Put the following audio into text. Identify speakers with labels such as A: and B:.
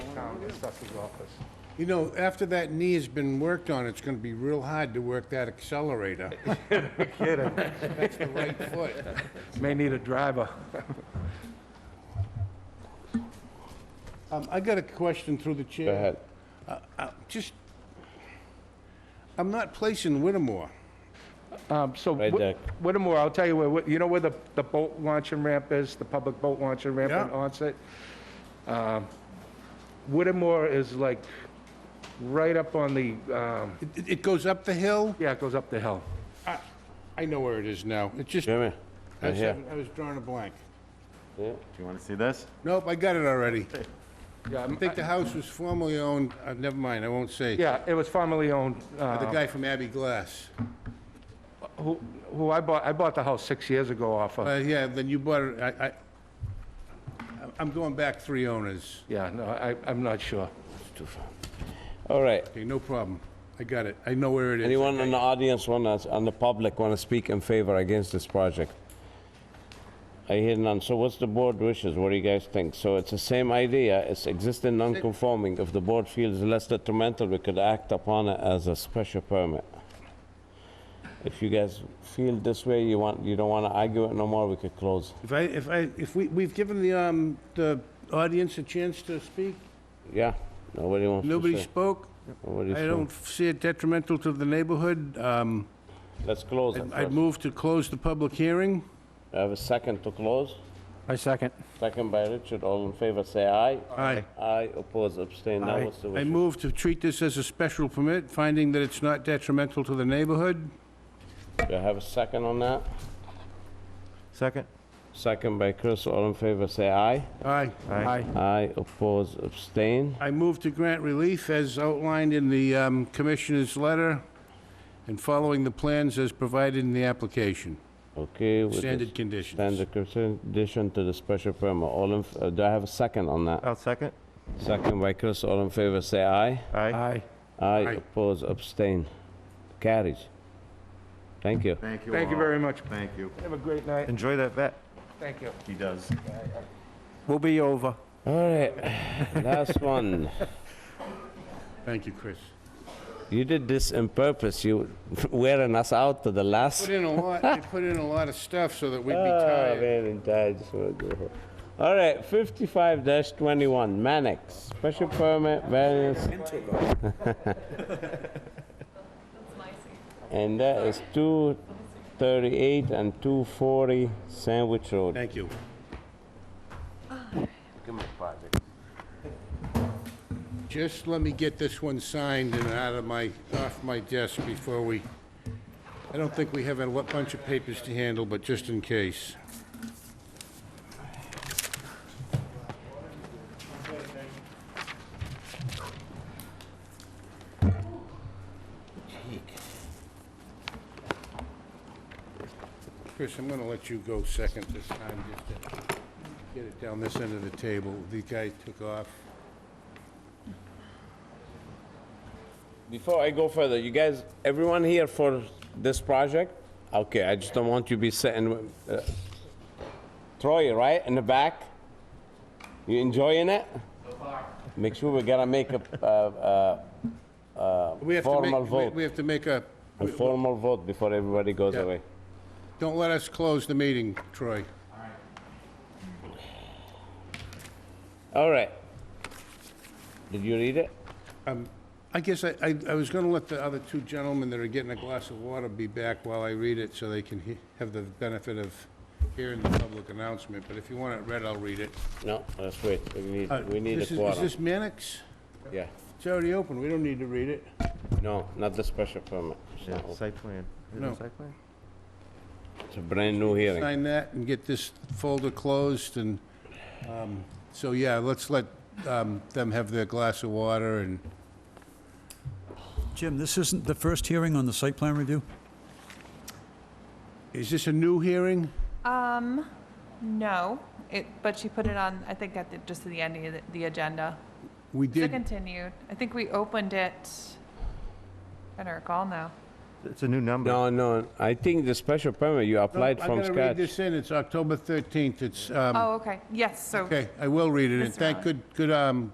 A: assessor's office.
B: You know, after that knee has been worked on, it's gonna be real hard to work that accelerator.
A: Kidding.
B: That's the right foot.
A: May need a driver.
B: Um, I got a question through the chair.
C: Go ahead.
B: Uh, Just, I'm not placing Whittemore.
A: Um, So
C: Right,
A: Whit-
C: Dick.
A: Whittemore, I'll tell you where, Whit- you know where the, the boat launching ramp is, the public boat launching ramp in
B: Yeah.
A: Onset? Um, Whittemore is like right up on the, um,
B: It- It, it goes up the hill?
A: yeah, it goes up the hill.
B: I, I know where it is now. It's just, I
C: Jimmy, right
B: was
C: here.
B: having- I was drawing a blank.
C: Yeah.
D: Do you want to see this?
B: Nope, I got it already.
A: Yeah,
B: I think the house was formerly owned, uh, never mind, I won't say.
A: Yeah, it was formerly owned,
B: By The
A: uh,
B: guy from Abbey Glass.
A: who, who I bought, I bought the house six years ago off of.
B: Uh, yeah, then you bought it, I, I, I'm going back three owners.
A: Yeah, no, I, I'm not sure.
C: All right.
B: Okay, no problem. I got it. I know where it is.
C: Anyone in the audience want to, and the public want to speak in favor against this project? I hear none. So what's the board wishes? What do you guys think? So it's the same idea. It's existing non-conforming. If the board feels less detrimental, we could act upon it as a special permit. If you guys feel this way, you want, you don't want to argue it no more, we could close.
B: If I, if I, if we, we've given the, um, the audience a chance to speak,
C: Yeah? Nobody wants to
B: nobody
C: say?
B: spoke,
C: Nobody
B: I
C: spoke.
B: don't see it detrimental to the neighborhood, um,
C: Let's close it
B: I'd- I'd
C: first.
B: move to close the public hearing.
C: I have a second to close.
E: I second.
C: Second by Richard. All in favor, say aye.
B: Aye.
C: Aye, oppose, abstain. Now what's the
B: I
C: wish?
B: move to treat this as a special permit, finding that it's not detrimental to the neighborhood.
C: Do I have a second on that?
D: Second?
C: Second by Chris. All in favor, say aye.
B: Aye.
E: Aye.
C: Aye, oppose, abstain.
B: I move to grant relief as outlined in the um, commissioner's letter and following the plans as provided in the application.
C: Okay. with the
B: Standard conditions.
C: Standard condition to the special permit. All in, f- uh, do I have a second on that?
D: I'll second.
C: Second by Chris. All in favor, say aye.
D: Aye.
E: Aye.
C: Aye, oppose, abstain. Carries. Thank you.
D: Thank you
A: Thank you
D: all.
A: very much.
D: Thank you.
A: Have a great night.
D: Enjoy that vet.
A: Thank you.
D: He does.
E: We'll be over.
C: All right, last one.
B: Thank you, Chris.
C: You did this on purpose. You wearing us out to the last.
B: Put in a lot, they put in a lot of stuff so that we'd be
C: Ah,
B: tired.
C: man, and I just wanna go home. All right, fifty-five twenty-one, Mannix, special permit, variance. And that is two thirty-eight and two forty Sandwich Road.
B: Thank you. Just let me get this one signed and out of my, off my desk before we, I don't think we have a lo- bunch of papers to handle, but just in case. Chris, I'm gonna let you go second this time, just to get it down this end of the table. The guy took off.
C: Before I go further, you guys, everyone here for this project? Okay, I just don't want you to be sitting, uh, Troy, right, in the back? You enjoying it? Make sure we gotta make a, uh, uh,
B: We have to
C: Formal
B: make- we-
C: vote.
B: We have to make a,
C: a formal vote before everybody goes
B: Yeah.
C: away.
B: don't let us close the meeting, Troy.
C: All right. Did you read it?
B: I guess I, I, I was gonna let the other two gentlemen that are getting a glass of water be back while I read it, so they can he- have the benefit of hearing the public announcement, but if you want it read, I'll read it.
C: No, let's wait. We
B: Uh,
C: need, we need a
B: this is-
C: quorum.
B: Is this Mannix?
C: Yeah.
B: It's already open, we don't need to read it.
C: No, not the special permit. It's not open.
D: Site plan. Is it
B: No.
D: Site plan?
C: It's a brand new hearing.
B: Sign that and get this folder closed, and, um, so, yeah, let's let, um, them have their glass of water and,
F: Jim, this isn't the first hearing on the site plan review?
B: is this a new hearing?
G: Um, no, it, but she put it on, I think at the, just at the end of the, the agenda.
B: We
G: It's a
B: did,
G: continued. I think we opened it, I don't recall now.
D: It's a new number.
C: No, no, I think the special permit, you applied from
B: I'm gonna read
C: scratch.
B: this in, it's October 13th, it's, um,
G: Oh, okay, yes, so.
B: okay, I will read it, and
G: Mr.
B: thank
G: Allen.
B: good, good, um,